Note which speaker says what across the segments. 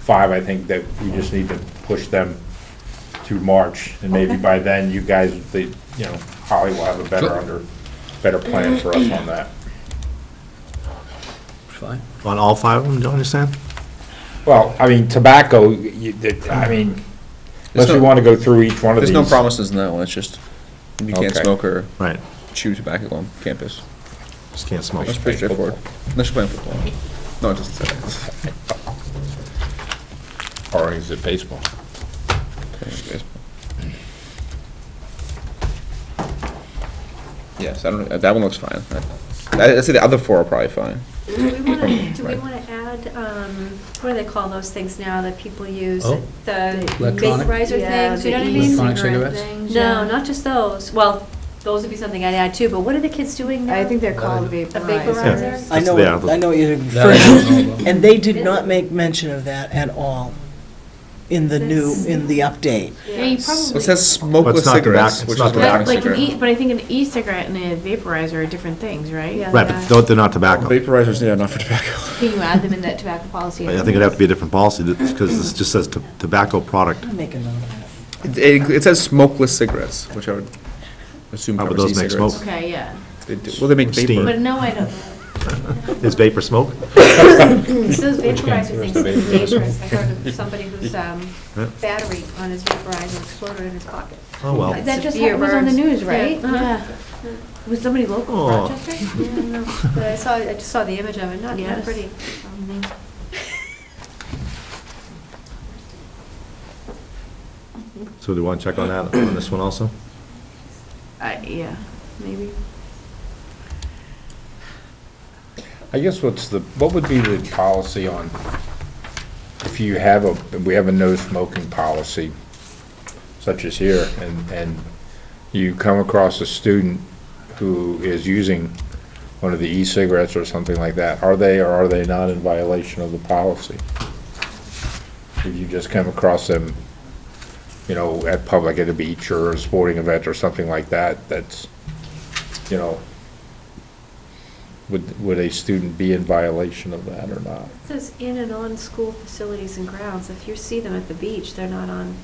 Speaker 1: five, I think that we just need to push them to March, and maybe by then, you guys, they, you know, Holly will have a better under, better plan for us on that.
Speaker 2: Fine.
Speaker 3: On all five of them, do you understand?
Speaker 1: Well, I mean, tobacco, you, that- I mean,
Speaker 2: There's
Speaker 1: unless we
Speaker 2: no-
Speaker 1: wanna go through each one of
Speaker 2: There's
Speaker 1: these.
Speaker 2: no promises in that one, it's just, you can't
Speaker 1: Okay.
Speaker 2: smoke or
Speaker 3: Right,
Speaker 2: chew tobacco on campus.
Speaker 3: just can't smoke.
Speaker 2: That's pretty straightforward. Unless you're playing football. No, it doesn't say that.
Speaker 1: Or is it baseball?
Speaker 2: Okay, baseball. Yes, I don't, that one looks fine. I- I'd say the other four are probably fine.
Speaker 4: Do we want to, do we
Speaker 2: Right.
Speaker 4: want to add, um, what do they call those things now that people use?
Speaker 5: Oh.
Speaker 4: The
Speaker 5: Electronic?
Speaker 4: vaporizer
Speaker 6: Yeah,
Speaker 4: things, you
Speaker 6: the
Speaker 4: know what I
Speaker 6: e-cigarette
Speaker 4: mean?
Speaker 5: Electronic cigarettes?
Speaker 6: things,
Speaker 4: No,
Speaker 6: yeah.
Speaker 4: not just those. Well, those would be something I'd add too, but what are the kids doing now?
Speaker 6: I think they're called
Speaker 5: A
Speaker 4: A
Speaker 6: vaporizers.
Speaker 4: vaporizer?
Speaker 7: I know,
Speaker 3: Yeah, the-
Speaker 7: I know what you're
Speaker 5: That I don't know
Speaker 7: referring
Speaker 5: about.
Speaker 7: to, and they did not make mention of that at all in the new, in the update.
Speaker 6: Yeah, you
Speaker 2: So It
Speaker 6: probably,
Speaker 2: says smokeless
Speaker 3: It's not tobacco-
Speaker 2: cigarettes,
Speaker 3: it's
Speaker 2: which is
Speaker 3: not
Speaker 2: what
Speaker 3: tobacco.
Speaker 2: I'm
Speaker 6: but like an
Speaker 2: cigarette.
Speaker 6: e, but I think an e-cigarette and a vaporizer are different things, right?
Speaker 4: Yeah.
Speaker 3: Right, but don't- they're not tobacco.
Speaker 2: Vaporizers, yeah, not for tobacco.
Speaker 6: Can you add them in that tobacco policy?
Speaker 3: I think it'd have to be a different policy, because this just says to- tobacco product.
Speaker 7: I'll make a note of
Speaker 2: It- It it says smokeless cigarettes, which I would assume
Speaker 3: How would
Speaker 2: covers
Speaker 3: those make
Speaker 2: e-cigarettes.
Speaker 3: smoke?
Speaker 6: Okay, yeah.
Speaker 2: They do- Well, they make
Speaker 3: Steam.
Speaker 2: vapor.
Speaker 6: But no, I don't.
Speaker 3: Is vapor smoke?
Speaker 4: Those vaporizer
Speaker 1: Where's
Speaker 4: things
Speaker 1: the
Speaker 4: are
Speaker 1: vaporizer?
Speaker 4: dangerous. I heard of somebody whose, um,
Speaker 3: Yeah.
Speaker 4: battery on his vaporizer exploded in his pocket.
Speaker 3: Oh, well.
Speaker 4: Like
Speaker 6: That just
Speaker 4: severe
Speaker 6: happened- was on the
Speaker 4: burns.
Speaker 6: news, right?
Speaker 4: Yeah, uh-huh.
Speaker 6: Yeah. Was somebody local
Speaker 3: Oh.
Speaker 6: from Rochester?
Speaker 4: Yeah, no, But I saw, I just saw the image of it, not, not
Speaker 6: Yes.
Speaker 4: pretty. Um,
Speaker 3: So do you want to check on that, on this one also?
Speaker 6: I yeah, maybe.
Speaker 1: I guess what's the, what would be the policy on, if you have a, we have a no smoking policy, such as here, and, and you come across a student who is using one of the e-cigarettes or something like that, are they or are they not in violation of the policy? If you just come across them, you know, at public, at a beach or a sporting event or something like that, that's, you know, would, would a student be in violation of that or not?
Speaker 4: It says in and on school facilities and grounds. If you see them at the beach, they're not on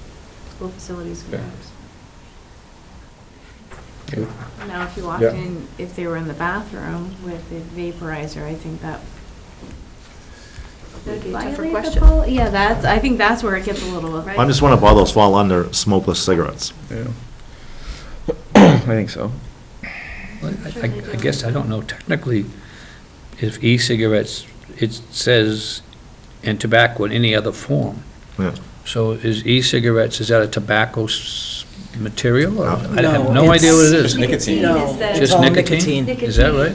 Speaker 4: school facilities and
Speaker 1: Yeah.
Speaker 4: grounds.
Speaker 6: Now, if you walked
Speaker 1: Yeah.
Speaker 6: in, if they were in the bathroom with the vaporizer, I think that
Speaker 4: That'd be a
Speaker 6: Violate
Speaker 4: tougher
Speaker 6: the
Speaker 4: question.
Speaker 6: pol- Yeah, that's, I think that's where it gets a little.
Speaker 4: Right.
Speaker 3: I'm just wondering if all those fall under smokeless cigarettes.
Speaker 2: Yeah. I think so.
Speaker 5: Well, I I- I guess, I don't know, technically, if e-cigarettes, it says, and tobacco in any other form.
Speaker 3: Yeah.
Speaker 5: So is e-cigarettes, is that a tobacco s- material? or-
Speaker 3: No.
Speaker 5: I have
Speaker 7: No,
Speaker 5: no idea what it
Speaker 7: it's-
Speaker 5: is.
Speaker 2: Just nicotine.
Speaker 7: it. No,
Speaker 4: that-
Speaker 7: it's
Speaker 5: Just
Speaker 7: all
Speaker 5: nicotine?
Speaker 7: nicotine.
Speaker 5: Is that right?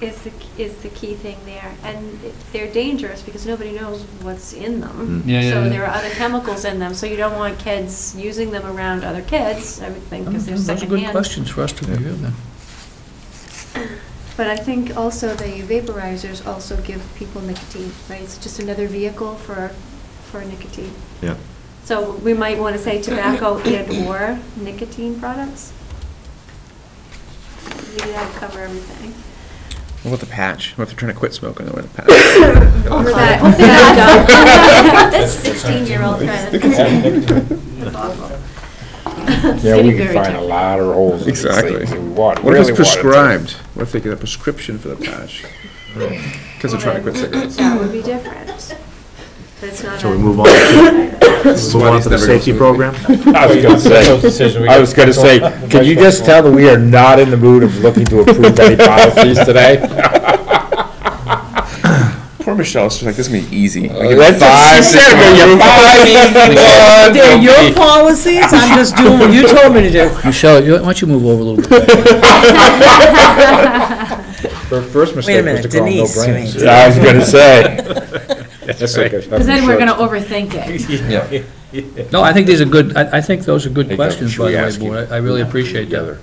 Speaker 4: Is the, is the key thing there. And it- they're dangerous because nobody knows what's in them.
Speaker 3: Mm.
Speaker 5: Yeah, yeah,
Speaker 4: So
Speaker 5: yeah.
Speaker 4: there are other chemicals in them, so you don't want kids using them around other kids, I would think, because they're
Speaker 5: Those are
Speaker 4: secondhand.
Speaker 5: good questions for us to review then.
Speaker 8: But I think also the vaporizers also give people nicotine, right? It's just another vehicle for, for nicotine.
Speaker 3: Yeah.
Speaker 4: So we might want to say tobacco and/or nicotine products? Maybe that would cover everything.
Speaker 2: What about the patch? What if they're trying to quit smoking? They wear the patch.
Speaker 8: Or
Speaker 2: That's-
Speaker 8: that-
Speaker 4: Hope they're not dumb. That's sixteen-year-old trying to. That's awful.
Speaker 1: Yeah,
Speaker 6: Getting
Speaker 1: we can
Speaker 6: very
Speaker 1: find a
Speaker 6: technical.
Speaker 1: lot of holes in these
Speaker 2: Exactly.
Speaker 1: things that we want,
Speaker 2: What
Speaker 1: really
Speaker 2: if
Speaker 1: want.
Speaker 2: it's prescribed? What if they get a prescription for the patch? Because they're trying to quit cigarettes.
Speaker 4: That would be different. But it's not.
Speaker 3: Shall we
Speaker 4: a-
Speaker 3: move on to,
Speaker 2: This is
Speaker 3: move
Speaker 2: why
Speaker 3: on
Speaker 2: these
Speaker 3: to the
Speaker 2: never go smoothly.
Speaker 3: safety program?
Speaker 1: I was gonna say, I was gonna say, can you just tell that we are not in the mood of looking to approve any policies today?
Speaker 2: Poor Michelle's just like, this is gonna be easy. Like, if
Speaker 1: That's what she said, but you're
Speaker 7: it.
Speaker 1: five,
Speaker 7: They're
Speaker 1: one,
Speaker 7: your
Speaker 1: don't be-
Speaker 7: policies, I'm just doing what you told me to do.
Speaker 5: Michelle, you- why don't you move over a little bit?
Speaker 1: Her First
Speaker 7: Wait a
Speaker 1: mistake was to call
Speaker 7: minute,
Speaker 1: no
Speaker 7: Denise, you mean.
Speaker 1: brains. I was gonna say. That's
Speaker 5: right.
Speaker 1: okay.
Speaker 6: Because then we're gonna overthink it.
Speaker 2: Yeah.
Speaker 5: No, I think these are good, I I think those are good
Speaker 1: Hey, Doug,
Speaker 5: questions,
Speaker 1: should
Speaker 5: by
Speaker 1: we
Speaker 5: the way,
Speaker 1: ask you-
Speaker 5: Board. I I really
Speaker 1: who
Speaker 5: appreciate
Speaker 1: the
Speaker 5: that.
Speaker 1: other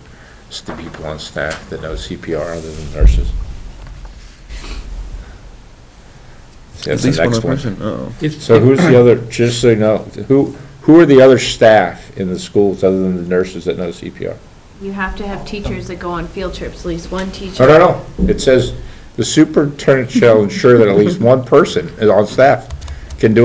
Speaker 1: s- The people on staff that know CPR other than nurses. See,
Speaker 2: At
Speaker 1: That's the
Speaker 2: least one
Speaker 1: next
Speaker 2: other
Speaker 1: one.
Speaker 2: person, oh.
Speaker 5: If-
Speaker 1: So who's the other, just so you know, who, who are the other staff in the schools other than the nurses that know CPR?
Speaker 6: You have to have teachers that go on field trips, at least one
Speaker 1: No,
Speaker 6: teacher.
Speaker 1: no, no. It says, "The superintendent shall ensure that at least one person is on staff can do